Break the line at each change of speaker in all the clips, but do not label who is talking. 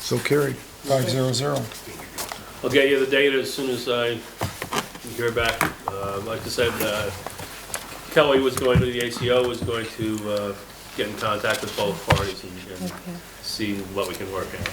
So carried, five zero zero.
I'll get you the data as soon as I hear back. Uh, Like I said, uh, Kelly was going to, the ACO was going to uh, get in contact with both parties and- and
Okay.
see what we can work out.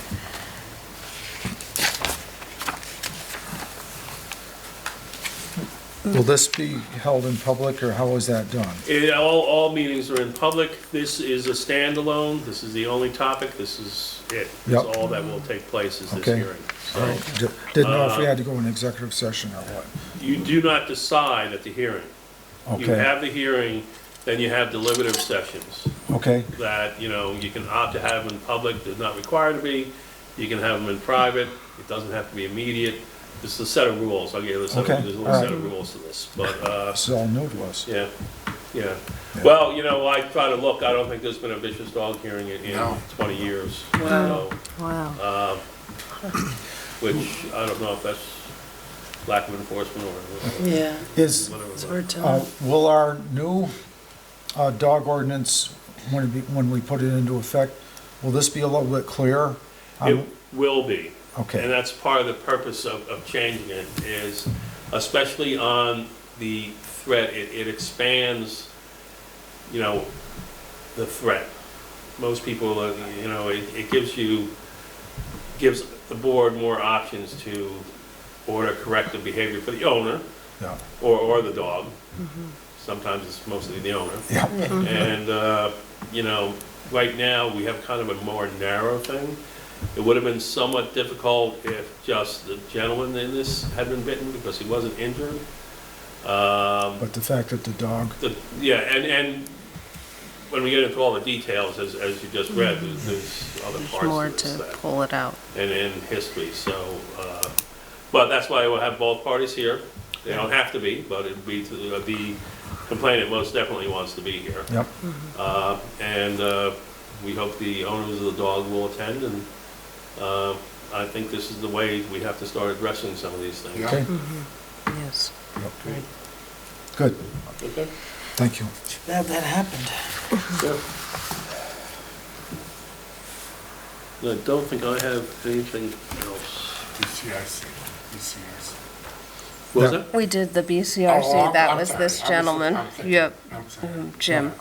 Will this be held in public, or how is that done?
It- All, all meetings are in public. This is a standalone. This is the only topic. This is it. That's
Yep.
all that will take place is this
Okay.
hearing.
All
So
right, di- Didn't know if we had to go in executive session or what.
you do not decide at the hearing. You
Okay,
have the hearing, then you have deliberative sessions
okay,
that, you know, you can opt to have in public, they're not required to be. You can have them in private. It doesn't have to be immediate. This is a set of rules. I'll give you a set
Okay,
of, there's a
all
little
right.
set of rules to this. But, uh,
this is all new to us.
Yeah, yeah. Well, you know, I try to look, I don't think there's been a vicious dog hearing in, in
No.
twenty years. so,
Wow. Wow.
uh, Which, I don't know if that's lack of enforcement or
Yeah,
Is,
it's
whatever.
hard
uh,
to,
will our new uh, dog ordinance, when it be- when we put it into effect, will this be a little bit clearer? Um,
but It will be.
Okay.
And that's part of the purpose of, of changing it is, especially on the threat, it, it expands, you know, the threat. Most people, uh, you know, it, it gives you, gives the board more options to order corrective behavior for the owner
Yeah.
or, or the dog. Sometimes it's mostly the owner.
Yeah,
And, uh, you know, right now, we have kind of a more narrow thing. It would have been somewhat difficult if just the gentleman in this had been bitten because he wasn't injured. Um,
but the fact that the dog,
the- Yeah, and, and when we get into all the details, as, as you just read, there's- there's other
Mm-hmm. there's
parts
more
of this
to
that
pull it out.
and in history, so, uh, but that's why we'll have both parties here. They don't have to be, but it'd be, to- uh, the complainant most definitely wants to be here.
yep,
Uh, And uh, we hope the owners of the dog will attend, and uh, I think this is the way we have to start addressing some of these things.
Yeah.
okay,
Yes.
yep. good,
Okay?
thank you.
Glad that happened.
I don't think I have anything else.
DCIC, DCIC.
What was
Yeah.
that?
We did the
Oh, I'm-
BCRC, that
I'm
was
sorry.
this
I'm sorry.
gentleman.
I'm sorry.
Yep,
I'm sorry.
mm, Jim.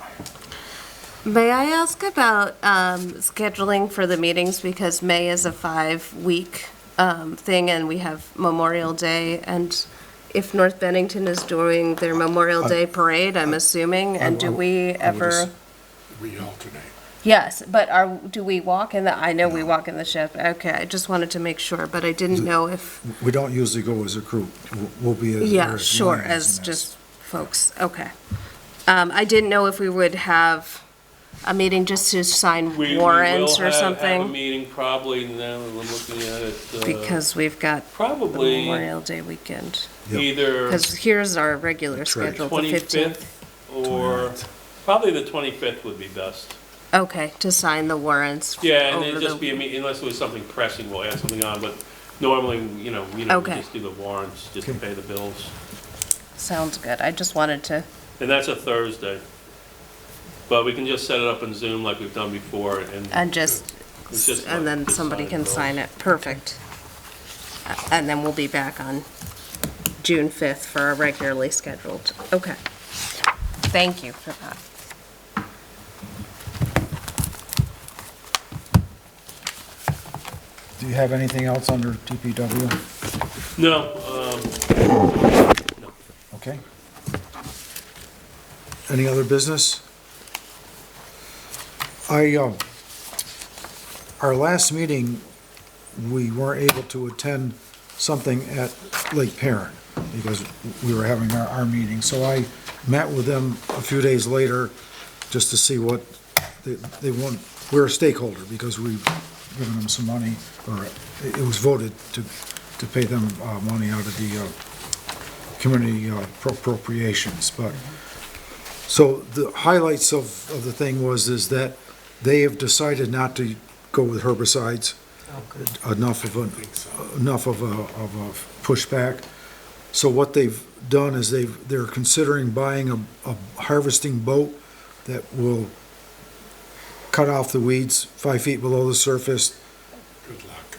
May I ask about um, scheduling for the meetings, because May is a five-week um, thing, and we have Memorial Day, and if North Bennington is doing their Memorial Day Parade, I'm assuming, and do we
just-
ever?
We alternate.
Yes, but are, do we walk in the, I know we walk in the ship, okay, I just wanted to make sure, but I didn't know if,
We don't usually go as a group, We'll- we'll be as.
yeah,
as
sure,
lines in this.
as just folks, okay. Um, I didn't know if we would have a meeting just to sign
We-
warrants or
We will have- have a
something,
meeting probably now, we're looking at it. uh,
because we've got the
Probably
Memorial Day weekend.
Yep.
either.
Because here's our regular schedule, the 15th.
25th or, probably the 25th would be best.
Okay, to sign the warrants.
Yeah, and
over
it'd just
the-
be, a meet- unless there was something pressing, we'll add something on, but normally, you know, we don't we
Okay.
just do the warrants, just to
Okay.
pay the bills.
Sounds good, I just wanted to,
And that's a Thursday. But we can just set it up in Zoom like we've done before and.
and just,
It's just like
and then
to
somebody
sign
can
those.
sign it, perfect. A- And then we'll be back on June 5th for our regularly scheduled, okay. Thank you for that.
Do you have anything else under DPW?
No, um,
Okay. Any other business? I, um, our last meeting, we weren't able to attend something at Lake Perrin because we were having our, our meeting. So I met with them a few days later just to see what they, they want. We're a stakeholder because we've given them some money, or it it was voted to, to pay them, uh, money out of the, uh, community uh, appropriations, but, so the highlights of, of the thing was, is that they have decided not to go with herbicides. Enough of a, enough of a, of a pushback. So what they've done is they've, they're considering buying a, a harvesting boat that will cut off the weeds five feet below the surface